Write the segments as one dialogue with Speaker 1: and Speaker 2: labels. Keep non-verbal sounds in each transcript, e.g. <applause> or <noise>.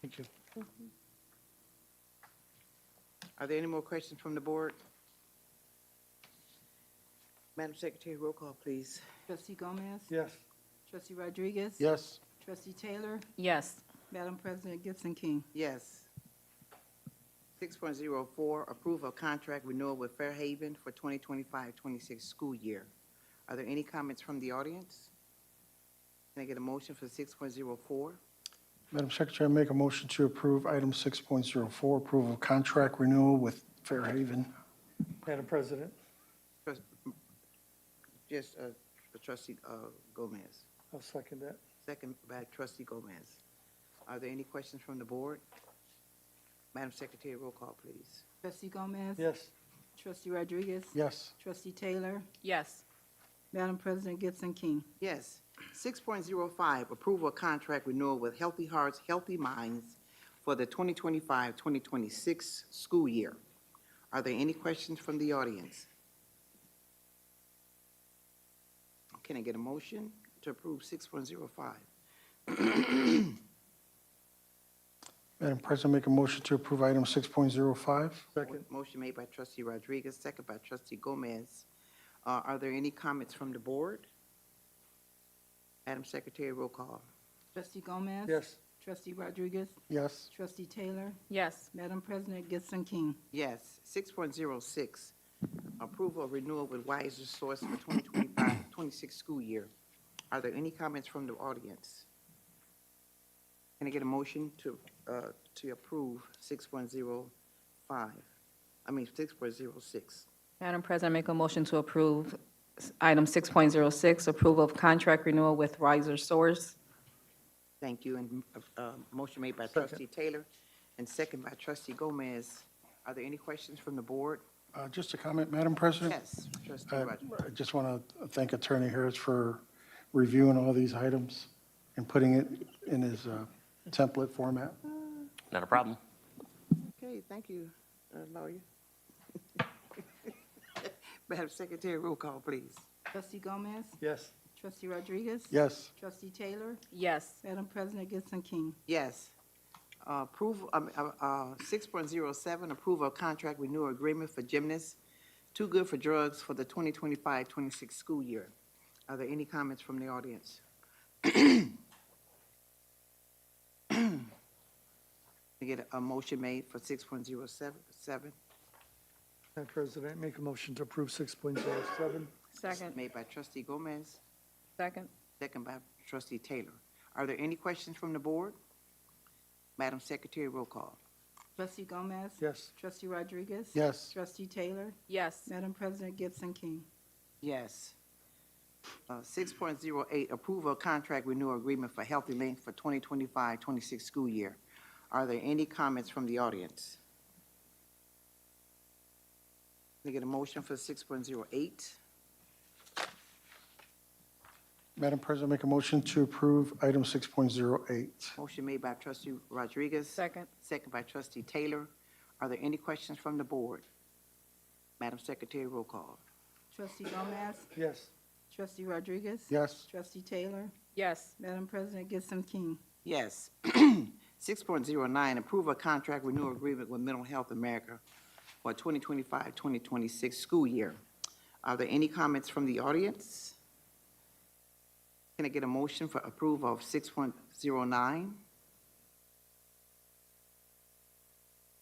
Speaker 1: Thank you.
Speaker 2: Are there any more questions from the board? Madam Secretary, roll call, please.
Speaker 3: Trustee Gomez?
Speaker 1: Yes.
Speaker 3: Trustee Rodriguez?
Speaker 1: Yes.
Speaker 3: Trustee Taylor?
Speaker 4: Yes.
Speaker 3: Madam President Gibson King?
Speaker 2: Yes. Six point zero four, approve of contract renewal with Fairhaven for 2025-26 school year. Are there any comments from the audience? Can I get a motion for six point zero four?
Speaker 1: Madam Secretary, I make a motion to approve item 6.04, approval of contract renewal with Fairhaven.
Speaker 5: Madam President,
Speaker 2: Just, uh, trustee, uh, Gomez,
Speaker 5: I'll second that.
Speaker 2: second by trustee Gomez. Are there any questions from the board? Madam Secretary, roll call, please.
Speaker 3: Trustee Gomez?
Speaker 5: Yes,
Speaker 3: Trustee Rodriguez?
Speaker 1: Yes.
Speaker 3: Trustee Taylor?
Speaker 4: Yes.
Speaker 3: Madam President Gibson King?
Speaker 2: Yes. Six point zero five, approval of contract renewal with Healthy Hearts, Healthy Minds for the 2025-2026 school year. Are there any questions from the audience? Can I get a motion to approve six point zero five?
Speaker 1: Madam President, I make a motion to approve item 6.05.
Speaker 5: second.
Speaker 2: Motion made by trustee Rodriguez, second by trustee Gomez. Uh, are there any comments from the board? Madam Secretary, roll call.
Speaker 3: Trustee Gomez?
Speaker 5: Yes,
Speaker 3: Trustee Rodriguez?
Speaker 1: Yes.
Speaker 3: Trustee Taylor?
Speaker 4: Yes.
Speaker 3: Madam President Gibson King?
Speaker 2: Yes. Six point zero six, approval of renewal with Wiser Source for 2025-26 school year. Are there any comments from the audience? Can I get a motion to, uh, to approve six point zero five? I mean, six point zero six.
Speaker 4: Madam President, I make a motion to approve s- item 6.06, approval of contract renewal with Riser Source.
Speaker 2: Thank you, and, uh, uh, motion made by trustee Taylor and second by trustee Gomez. Are there any questions from the board?
Speaker 1: Uh, Just a comment, Madam President?
Speaker 2: Yes, trustee
Speaker 1: Uh,
Speaker 2: Rogers.
Speaker 1: I just want to thank Attorney Harris for reviewing all these items and putting it in his uh, template format.
Speaker 6: Not a problem.
Speaker 2: Okay, thank you, uh, lawyer. <laughs> Madam Secretary, roll call, please.
Speaker 3: Trustee Gomez?
Speaker 5: yes,
Speaker 3: Trustee Rodriguez?
Speaker 1: Yes.
Speaker 3: Trustee Taylor?
Speaker 4: Yes.
Speaker 3: Madam President Gibson King?
Speaker 2: Yes. Uh, Approval, um, uh, uh, 6.07, approval of contract renewal agreement for gymnasts, Too Good for Drugs for the 2025-26 school year. Are there any comments from the audience? <clears throat> Can I get a motion made for 6.07?
Speaker 5: Madam President, make a motion to approve six point zero seven.
Speaker 4: Second.
Speaker 2: Made by trustee Gomez.
Speaker 4: Second.
Speaker 2: Second by trustee Taylor. Are there any questions from the board? Madam Secretary, roll call.
Speaker 3: Trustee Gomez?
Speaker 5: Yes,
Speaker 3: Trustee Rodriguez?
Speaker 1: Yes.
Speaker 3: Trustee Taylor?
Speaker 4: Yes.
Speaker 3: Madam President Gibson King?
Speaker 2: Yes. Uh, Six point zero eight, approval of contract renewal agreement for Healthy Link for 2025-26 school year. Are there any comments from the audience? Can I get a motion for six point zero eight?
Speaker 1: Madam President, I make a motion to approve item 6.08.
Speaker 2: Motion made by trustee Rodriguez.
Speaker 4: Second.
Speaker 2: Second by trustee Taylor. Are there any questions from the board? Madam Secretary, roll call.
Speaker 3: Trustee Gomez?
Speaker 5: yes,
Speaker 3: Trustee Rodriguez?
Speaker 1: Yes.
Speaker 3: Trustee Taylor?
Speaker 4: Yes.
Speaker 3: Madam President Gibson King?
Speaker 2: Yes. <clears throat> Six point zero nine, approve a contract renewal agreement with Mental Health America for 2025-2026 school year. Are there any comments from the audience? Can I get a motion for approval of six point zero nine?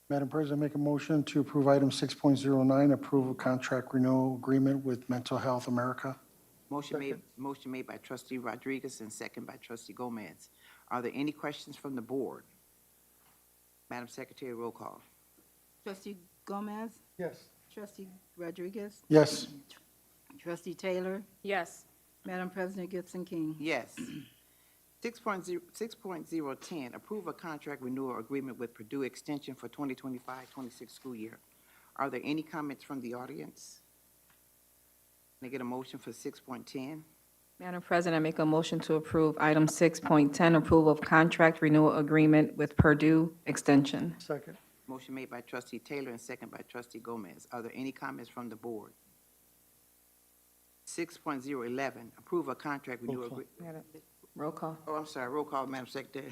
Speaker 1: Madam President, I make a motion to approve item 6.09, approval of contract renewal agreement with Mental Health America.
Speaker 2: Motion made, motion made by trustee Rodriguez and second by trustee Gomez. Are there any questions from the board? Madam Secretary, roll call.
Speaker 3: Trustee Gomez?
Speaker 5: yes,
Speaker 3: Trustee Rodriguez?
Speaker 1: Yes.
Speaker 3: Trustee Taylor?
Speaker 4: Yes.
Speaker 3: Madam President Gibson King?
Speaker 2: Yes. Six point zero, six point zero ten, approve a contract renewal agreement with Purdue Extension for 2025-26 school year. Are there any comments from the audience? Can I get a motion for six point ten?
Speaker 4: Madam President, I make a motion to approve item 6.10, approval of contract renewal agreement with Purdue Extension.
Speaker 5: second.
Speaker 2: Motion made by trustee Taylor and second by trustee Gomez. Are there any comments from the board? Six point zero eleven, approve a contract renewal. agree-
Speaker 4: Roll call.
Speaker 2: Oh, I'm sorry, roll call, Madam Secretary.